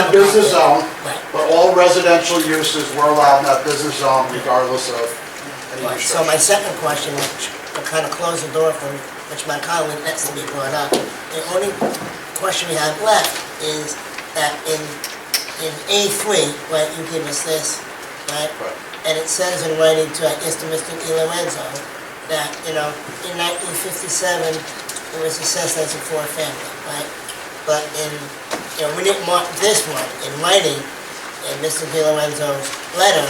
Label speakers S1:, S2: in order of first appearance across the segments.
S1: a business zone,
S2: Right.
S1: but all residential uses were allowed in that business zone regardless of any
S2: Right, so my
S1: restrictions.
S2: second question, which will kind of close the door for, which my colleague next to me brought up, the only question we have left is that in, in A3, right, you give us this, right?
S1: Right.
S2: And it says in writing to, I guess, to Mr. Di Lorenzo, that, you know, in 1957, it was assessed as a four-family, right? But in, you know, we didn't want this one in writing, in Mr. Di Lorenzo's letter,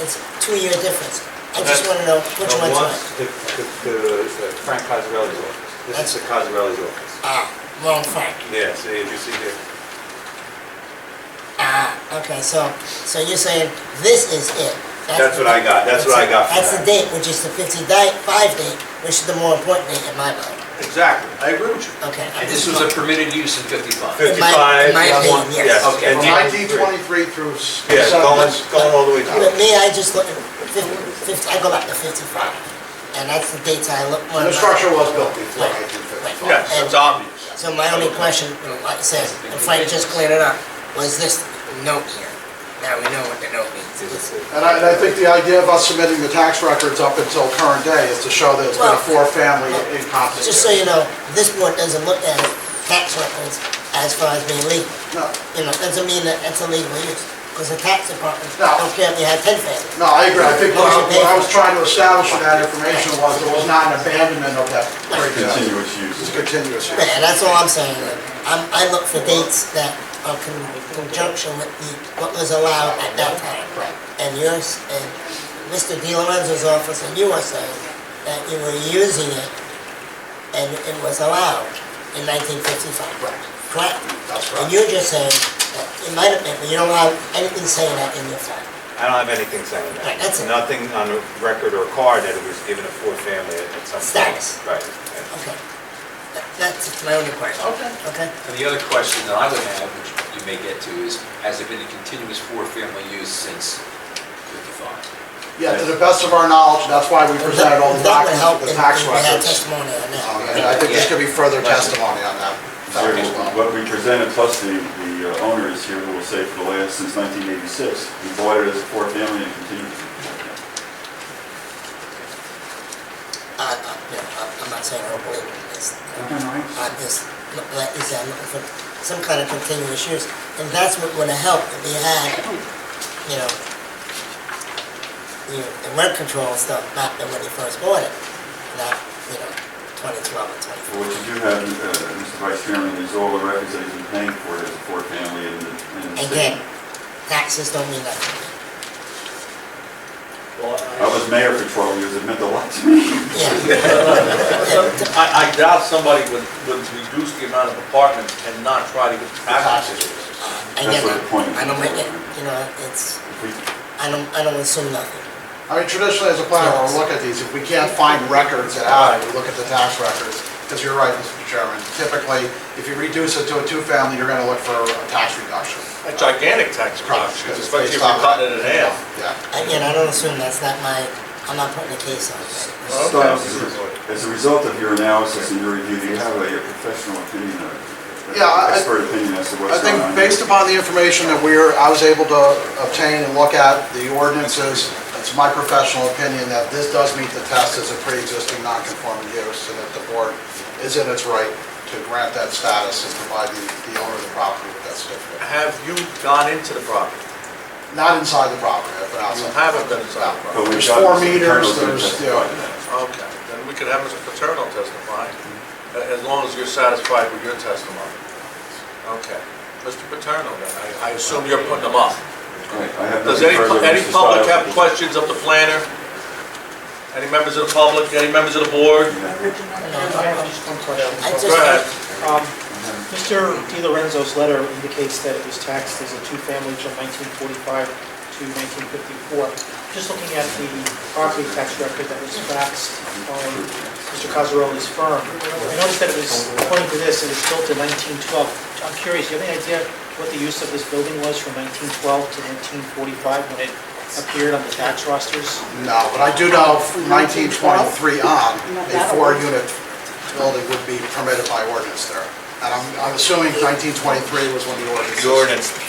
S2: it's two-year difference. I just want to know which
S3: The
S2: one's
S3: one-
S2: right.
S3: The, the, the Frank Cosarelli's office. This is the Cosarelli's office.
S2: Ah, wrong Frank.
S3: Yeah, see, if you see here,
S2: Ah, okay, so, so you're saying this is it?
S3: that's what I got, that's what I got
S2: That's
S3: for
S2: the date,
S3: that.
S2: which is the 55 date, which is the more important date in my mind.
S3: Exactly, I agree with you.
S2: Okay. I'm
S4: And this
S2: just-
S4: was a permitted use in 55.
S2: In my- in
S3: Fifty-five,
S2: my
S3: yeah,
S2: opinion,
S3: one-
S2: yes.
S3: yes.
S4: Okay.
S3: and
S1: From
S3: D-
S1: nineteen twenty-three through. s-
S3: Yeah, going,
S1: seven-
S3: going all the way
S2: But
S3: down.
S2: me, I just look, at fif- fif- I go back to 55, and that's the dates I look more.
S1: And the structure was built before
S2: Right,
S1: nineteen fifty-five.
S2: right.
S3: Yes, it's obvious.
S2: So my only question, like I said, and Frank just cleared it up, was this note here. Now we know what the note means.
S1: And I, and I think the idea of us submitting the tax records up until current day is to show that it's been a
S2: Well-
S1: four-family incompetent.
S2: Just so you know, this board doesn't look at tax records as far as being legal.
S1: No,
S2: You know, doesn't mean that it's illegal use, because the tax department
S1: No.
S2: don't care if you had 10 families.
S1: no, I agree. I think what I, what I was trying to establish with that information was there was not an abandonment of that. previous-
S5: Continuous
S1: It's
S5: use.
S1: continuous. use.
S2: Right, and that's all I'm saying. I'm, I look for dates that are con- conjunction with the, what was allowed at that time. And yours, and Mr. Di Lorenzo's office, and you were saying that you were using it and it was allowed in nineteen fifty-five.
S1: Right.
S2: Correct?
S1: That's
S2: And
S1: right.
S2: you're just saying that it might have been, but you don't have anything saying that in your file.
S3: I don't have anything saying
S2: Right,
S3: that.
S2: that's it.
S3: Nothing on the record or card that it was given a fourth family at at some point.
S2: Status.
S3: Right. yeah.
S2: Okay. That- That's my only question.
S1: Okay.
S2: Okay?
S4: And the other question that I would have, which you may get to, is has it been a continuous four-family use since 55?
S1: Yeah, to the best of our knowledge, that's why we presented all the
S2: That would help
S1: documents, with the
S2: if
S1: tax
S2: we had
S1: records.
S2: testimony on that.
S1: Um, And I think there's gonna be further
S4: Yeah.
S1: testimony on that. fact as well.
S5: What we presented, plus the, the uh, owner is here, who will say for the last, since 1986, we bought it as a four-family and continued.
S2: I, I, no, I- I'm not saying I don't believe in this. I just, like you said, I'm looking for some kind of continuous use, and that's what would have helped if we had, you know, you know, the rent control stuff back then when you first bought it, not, you know, twenty twelve and twenty
S5: But What you do have, uh, Mr. Vice Chairman, is all the records that he's been paying for it as a four-family in the, in the
S2: four.
S5: state.
S2: Again, taxes don't mean nothing. to
S5: I was mayor for 12 years, it meant a lot to me.
S2: me. Yeah.
S6: I, I doubt somebody would, would reduce the amount of apartments and not try to get the taxes.
S2: I
S5: That's
S2: get
S5: what
S2: it.
S5: the point is.
S2: Uh, I don't make it, you know, it's,
S5: If we-
S2: I don't, I don't assume nothing.
S1: I mean, traditionally, as a planner, we'll look at these, if we can't find records at all, we look at the tax records, because you're right, Mr. Chairman, typically, if you reduce it to a two-family, you're gonna look for a tax reduction.
S6: A gigantic tax reduction, especially if you're cutting it in half.
S1: Yeah.
S2: Again, I don't assume that's not my, I'm not putting a case on it.
S5: Stiles, as a- as a result of your analysis and your review, do you have a a professional opinion, or
S1: Yeah, I- I-
S5: expert opinion as to
S1: I
S5: what's
S1: think
S5: going on?
S1: based upon the information that we're, I was able to obtain and look at the ordinances, it's my professional opinion that this does meet the test as a pre-existing non-conforming use, and that the board is in its right to grant that status and provide the the owner of the property with that certificate.
S6: Have you gone into the property?
S1: Not inside the property, but
S6: You
S1: outside.
S6: haven't been inside the property?
S5: But
S1: There's
S5: we've got
S1: four
S5: Mr.
S1: meters,
S5: Colonel's gonna
S1: there's-
S5: testify
S1: yeah.
S5: to that.
S6: Okay, then we could have Mr. Paterno testify, a- as long as you're satisfied with your testimony. Okay, Mr. Paterno, then, I, I assume you're putting them up.
S5: Right, I have
S6: Does
S5: nothing
S6: any,
S5: further,
S6: any
S5: Mr.
S6: public
S5: Stiles.
S6: have questions of the planner? Any members of the public, any members of the
S2: I
S6: board? Go ahead.
S2: just,
S7: Um, Mr. Di Lorenzo's letter indicates that it was taxed as a two-family from 1945 to 1954. Just looking at the property tax record that was faxed on Mr. Cosarelli's firm, I noticed that it was, according to this, it was built in 1912. I'm curious, do you have any idea what the use of this building was from 1912 to 1945 when it appeared on the tax rosters?
S1: No, but I do know from 1923 on, a four-unit building would be permitted by ordinance there. And I'm I'm assuming 1923 was when the ordinance.
S3: The ordinance